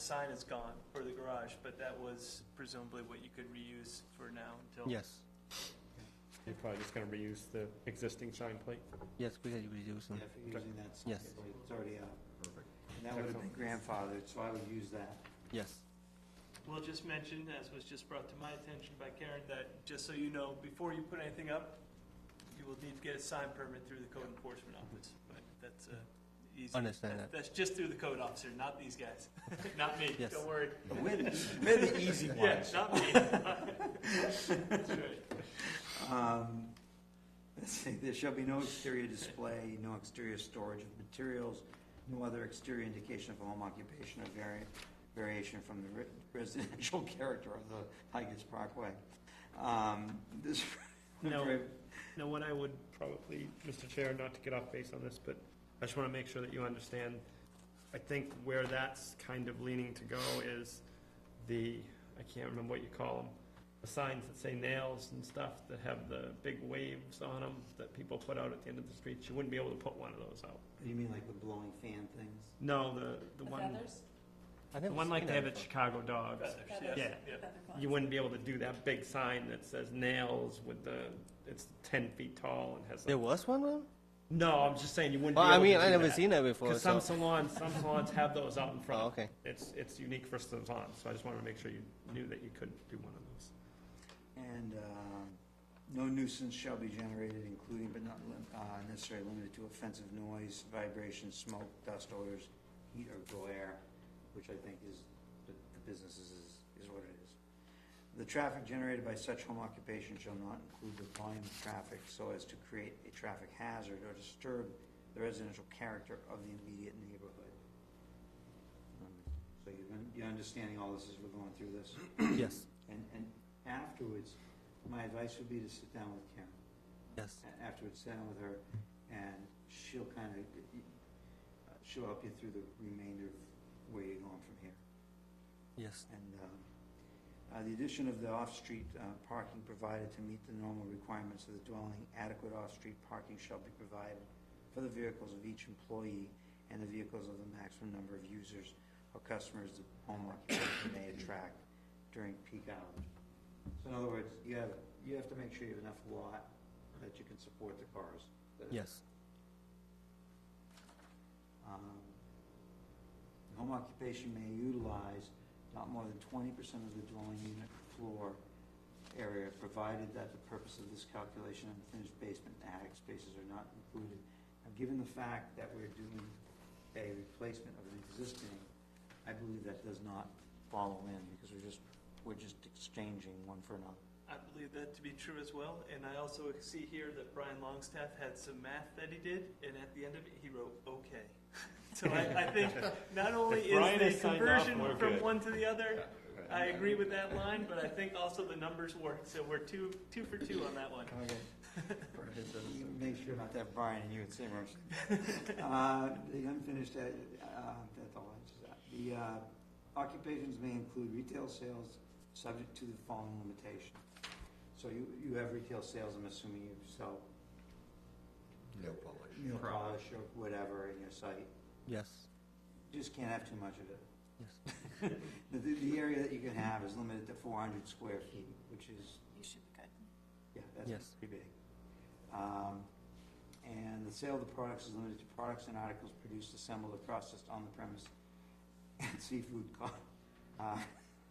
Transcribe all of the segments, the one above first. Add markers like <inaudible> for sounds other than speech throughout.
sign is gone for the garage, but that was presumably what you could reuse for now until. Yes, You're probably just gonna reuse the existing sign plate? yes, we can reduce Yeah, them. if you're using that. Yes. It's already out. And that would have been grandfathered, so I would use that. Yes, We'll just mention, as was just brought to my attention by Karen, that just so you know, before you put anything up, you will need to get a sign permit through the code enforcement office, but that's uh easy. Understand that. That's just through the code officer, not these guys, <laughs> not me, Yes. don't worry. We're the, we're the easy Yeah, ones. not me. <laughs> <laughs> That's right. Um, Let's see, there shall be no exterior display, no exterior storage of materials, no other exterior indication of home occupation or vari- variation from the re- residential <laughs> character of the Higas Parkway. Um, This. <laughs> No. Now, what I would probably, Mr. Chair, not to get off base on this, but I just wanna make sure that you understand, I think where that's kind of leaning to go is the, I can't remember what you call them, the signs that say nails and stuff that have the big waves on them that people put out at the end of the street, you wouldn't be able to put one of those out. You mean like the blowing fan things? No, the, the The one, feathers? I the never one like seen they have that at Chicago Dogs. Feathers, yes, Yeah. yeah. Feather You closet. wouldn't be able to do that big sign that says nails with the, it's ten feet tall and has. There like- was one. Well, No, I'm just saying you wouldn't. well be I able mean, to do I never that. seen that before. Because some So. salons, some salons have those out in front. Oh, okay. It's, it's unique for salons, so I just wanted to make sure you knew that you could do one of those. And um, no nuisance shall be generated, including but not lim- uh, necessarily limited to offensive noise, vibration, smoke, dust odors, heat or glare, which I think is, the the businesses is, is what it is. The traffic generated by such home occupation shall not include the volume of traffic so as to create a traffic hazard or disturb the residential character of the immediate neighborhood. Um, So you, you're understanding all this as we're going through this? yes, And, and afterwards, my advice would be to sit down with Karen. yes, A- Afterwards, sit down with her, and she'll kind of, she'll help you through the remainder of where you're going from here. yes, And um, uh, the addition of the off-street uh, parking provided to meet the normal requirements of the dwelling, adequate off-street parking shall be provided for the vehicles of each employee and the vehicles of the maximum number of users or customers the home occupation may attract during peak hours. So in other words, you have, you have to make sure you have enough lot that you can support the cars. that- yes. um, Home occupation may utilize not more than twenty percent of the dwelling unit floor area, provided that the purpose of this calculation, unfinished basement and attic spaces are not included. Now, given the fact that we're doing a replacement of an existing, I believe that does not follow in, because we're just, we're just exchanging one for another. I believe that to be true as well, and I also see here that Brian Longstaff had some math that he did, and at the end of it, he wrote, okay. <laughs> So I, I <laughs> think not only If is Brian has the signed off, conversion we're from good. one to the <laughs> other, I agree with that line, but I think also the numbers work, so we're two, two for two on that one. Make sure not to have Brian and you in the same room. Uh, The unfinished, uh, uh, that's all I just, the uh, occupations may include retail sales, subject to the following limitation. So you, you have retail sales, I'm assuming you sell No polish. nail polish or whatever in your site. Yes. Just can't have too much of it. <laughs> The, the the area that you can have is limited to four hundred square feet, which is You should be good. Yeah, that's Yes. pretty big. Um, And the sale of the products is limited to products and articles produced, assembled, or processed on the premise, and seafood caught, uh,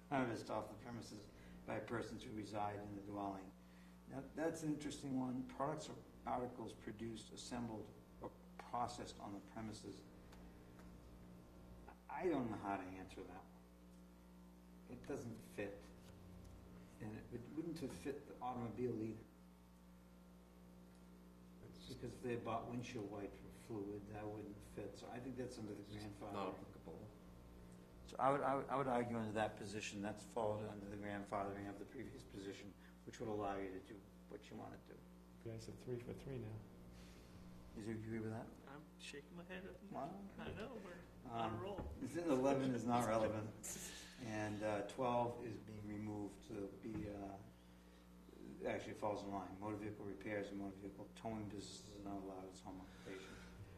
harvested off the premises by persons who reside in the dwelling. Now, that's an interesting one. Products or articles produced, assembled, or processed on the premises. I- I don't know how to answer that one. It doesn't fit. And it would- wouldn't have fit the automobile either. Because they bought windshield wiper fluid, that wouldn't fit, so I think that's under the grandfather. applicable. So I would, I would, I would argue under that position, that's followed under the grandfathering of the previous position, which would allow you to do what you want to do. You guys are three for three now. Is there, you agree with that? I'm shaking my head. Wow. I know, we're on Um, a roll. It's in eleven is not relevant, and uh, twelve is being removed to be, uh, actually falls in line. Motor vehicle repairs and motor vehicle towing business is not allowed as home occupation.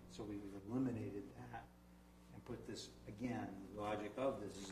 So we've eliminated that and put this, again, the logic of this is